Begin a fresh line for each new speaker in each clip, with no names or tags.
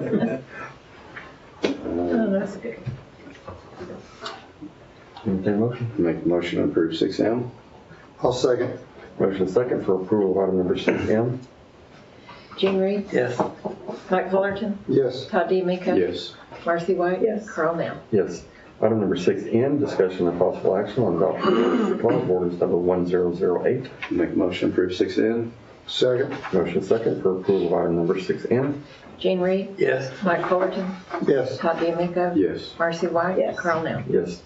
Oh,
Entertain a motion.
Make a motion to approve six M.
I'll second.
Motion and second for approval of item number six M.
Jean Reed,
Yes.
Mike Fullerton,
Yes.
Todd DeMeco.
Yes.
Marcy White.
Yes.
Carl Nell.
Yes. Item number six N, discussion of possible action on adoption of ordinance requirement, ordinance number one zero zero eight.
Make a motion to approve six N.
Second.
Motion and second for approval of item number six N.
Jean Reed,
Yes.
Mike Fullerton,
Yes.
Todd DeMeco.
Yes.
Marcy White.
Yes.
Carl Nell.
Yes.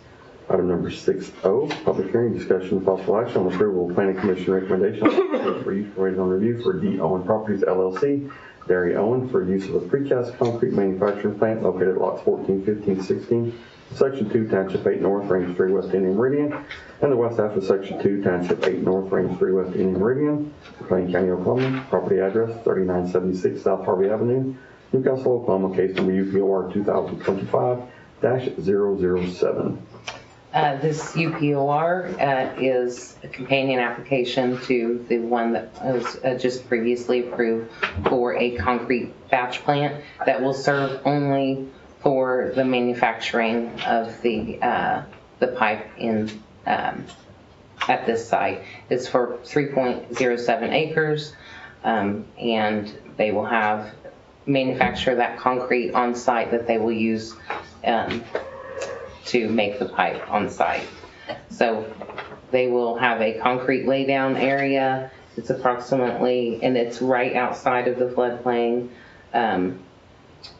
Item number six O, public hearing, discussion of possible action on approval of planning commission recommendation for use for raise on review for D Owen Properties LLC, Derry Owen, for use of a precast concrete manufacturing plant located at lots 14, 15, 16, section two, township eight north, range three, west Indian Meridian, and the west half of section two, township eight north, range three, west Indian Meridian, Plain County, Oklahoma, property address thirty-nine seventy-six South Harvey Avenue, Newcastle, Oklahoma, case number UPOR two thousand twenty-five 7
Uh, This UPOR uh, is a companion application to the one that was uh, just previously approved for a concrete batch plant that will serve only for the manufacturing of the, uh, the pipe in, um, at this site. It's for 3.07 acres, um, and they will have, manufacture that concrete on site that they will use um, to make the pipe on site. So they will have a concrete laydown area. It's approximately, and it's right outside of the floodplain. Um,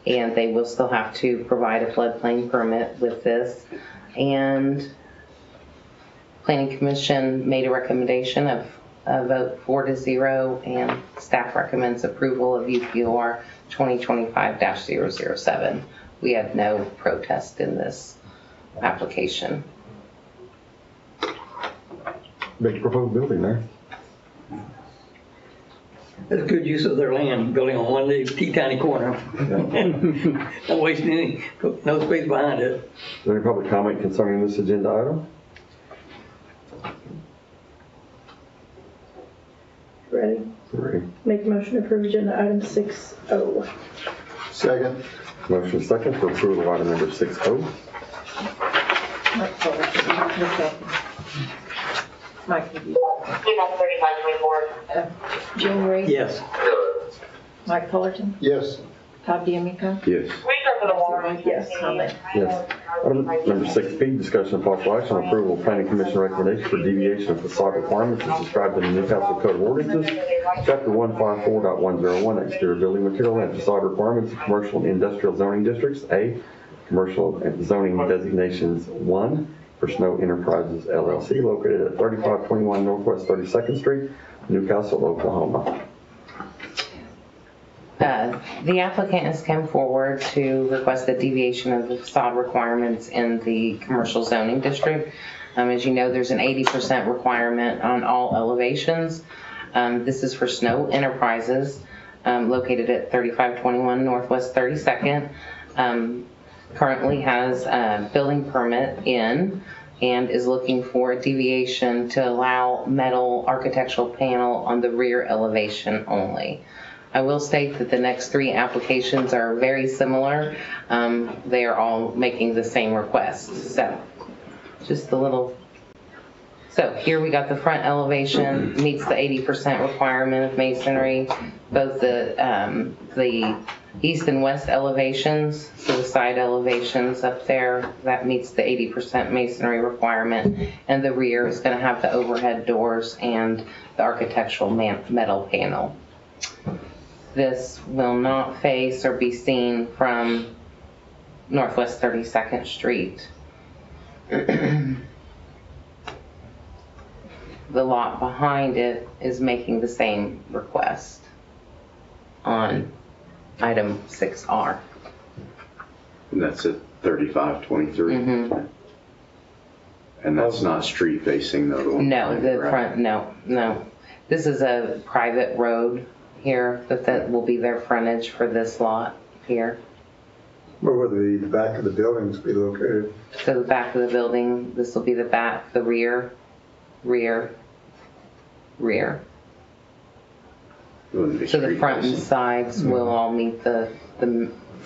And they will still have to provide a floodplain permit with this. And Planning Commission made a recommendation of a vote four to zero, and staff recommends approval of UPR 2025-007. We have no protest in this application.
Big proposed building there.
That's good use of their land, building on one little teeny tiny corner. Not wasting any, no space behind it.
Is there any public comment concerning this agenda item?
Ready?
Three.
Make a motion to approve agenda item six oh. O.
Second.
Motion second for approval of item number six oh. O.
Mike Fullerton, Mike McCaffrey. Mike McGee. Uh, Jean Reed.
Yes,
Mike Fullerton,
Yes.
Todd DeMeco.
Yes.
Yes.
Yes. Item number six B, discussion of possible action on approval of planning commission recommendation for deviation of facade requirements as described in the Newcastle Code of Ordinances, chapter one five four dot one zero one, exterior building material and facade requirements of commercial and industrial zoning districts, A, commercial and zoning designations one, for Snow Enterprises LLC located at thirty-five twenty-one Northwest Thirty-second Street, Newcastle, Oklahoma.
Uh, The applicant has come forward to request the deviation of the facade requirements in the commercial zoning district. Um, As you know, there's an 80% requirement on all elevations. Um, This is for Snow Enterprises um, located at 3521 Northwest 32nd. Um, Currently has a building permit in and is looking for a deviation to allow metal architectural panel on the rear elevation only. I will state that the next three applications are very similar. Um, They are all making the same request, so just a little. So here we got the front elevation meets the 80% requirement of masonry, both the, um, the east and west elevations, so the side elevations up there, that meets the 80% masonry requirement. And the rear is going to have the overhead doors and the architectural man- metal panel. This will not face or be seen from Northwest 32nd Street. The lot behind it is making the same request on item 6R.
And that's at thirty-five twenty-three?
Mhm.
And that's not street facing though?
No, the
right?
front, no, no. This is a private road here, but that will be their frontage for this lot here.
Where would the, the back of the buildings be located?
So the back of the building, this will be the back, the rear, rear, rear.
It wouldn't be
So the
street
front and
facing. Mm-hmm.
sides will all meet the, the